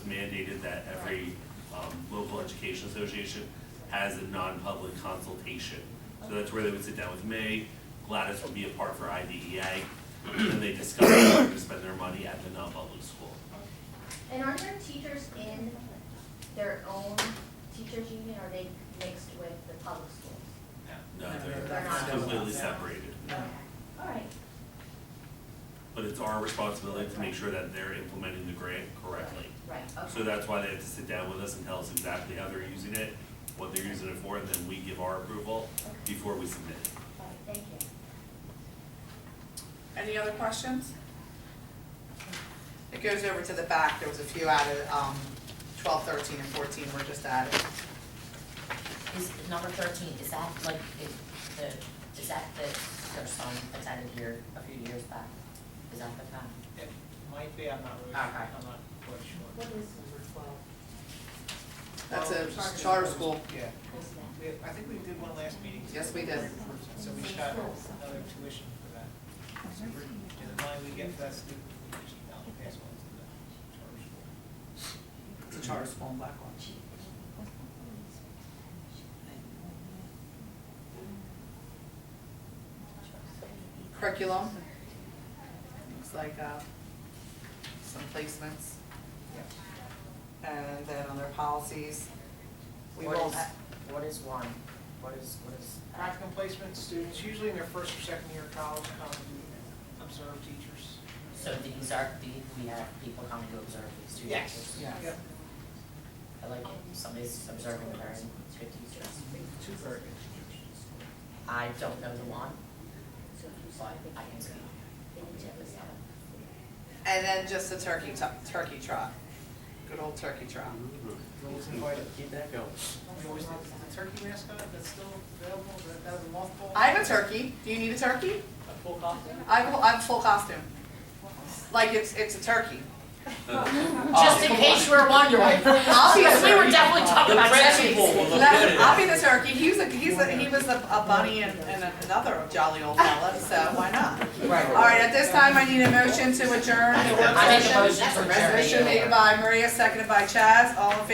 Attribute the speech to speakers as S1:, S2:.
S1: that every um, local education association has a non-public consultation. So that's where they would sit down with me, Gladys would be a part for IDEA, and they discuss how to spend their money at the non-public school.
S2: And are there teachers in their own teachers union, or are they mixed with the public schools?
S1: No,
S2: They're
S1: they're
S2: not.
S1: completely separated.
S2: Okay. All right,
S1: But it's our responsibility to make sure that they're implementing the grant correctly.
S2: right,
S1: So
S2: okay,
S1: that's why they have to sit down with us and tell us exactly how they're using it, what they're using it for, and then we give our approval before we submit it.
S2: all right, thank you.
S3: Any other questions? It goes over to the back, there was a few added, um, twelve, thirteen, and fourteen were just added.
S4: Is number thirteen, is that like, is the, is that the, there's some that's added here a few years back? Is that the fact?
S5: It might be, I'm not really,
S3: Ah,
S5: I'm
S4: Okay.
S5: not quite sure.
S6: What is number twelve?
S3: That's
S5: Well,
S3: a charter school,
S5: Yeah,
S6: What is that?
S5: we, I think we did one last meeting.
S3: Yes, we did.
S5: So we shot another tuition for that. So we're- And the money we get for that student, we usually now pass on to the charter school.
S3: it's a charter school in Blackwell. Curriculum, looks like, uh, some placements.
S5: Yeah.
S3: And then on their policies, we
S4: What
S3: will,
S4: is- What is one? What is, what is?
S5: Practicum placement students, usually in their first or second year of college, come and observe teachers.
S4: So these are, these, we have people coming to observe these two
S5: Yes.
S4: teachers.
S3: Yes.
S5: Yep,
S4: I like it, somebody's observing the very good teachers.
S5: two very good teachers.
S4: I don't know the one, but I can speak.
S3: and then just the turkey tu- turkey trot, good old turkey trot.
S5: We always invited,
S7: Keep that going.
S5: we always, did the turkey mascot, that's still available, that, that was a mothball.
S3: I have a turkey, do you need a turkey?
S5: A full costume?
S3: I have, I have a full costume. Like, it's, it's a turkey.
S4: Just in case you were wondering,
S3: I'll be the
S4: because we were
S3: turkey.
S4: definitely talking about
S7: principal
S4: turkeys.
S7: will look
S3: No,
S7: good
S3: I'll
S7: at
S3: be the turkey, he was a, he's a, he was a, a bunny and, and another jolly old fella, so why not? All
S4: Right.
S3: right, at this time, I need a motion to adjourn the work
S4: I make a
S3: session.
S4: motion to adjourn.
S3: Motion made by Maria, seconded by Chaz, all in favor?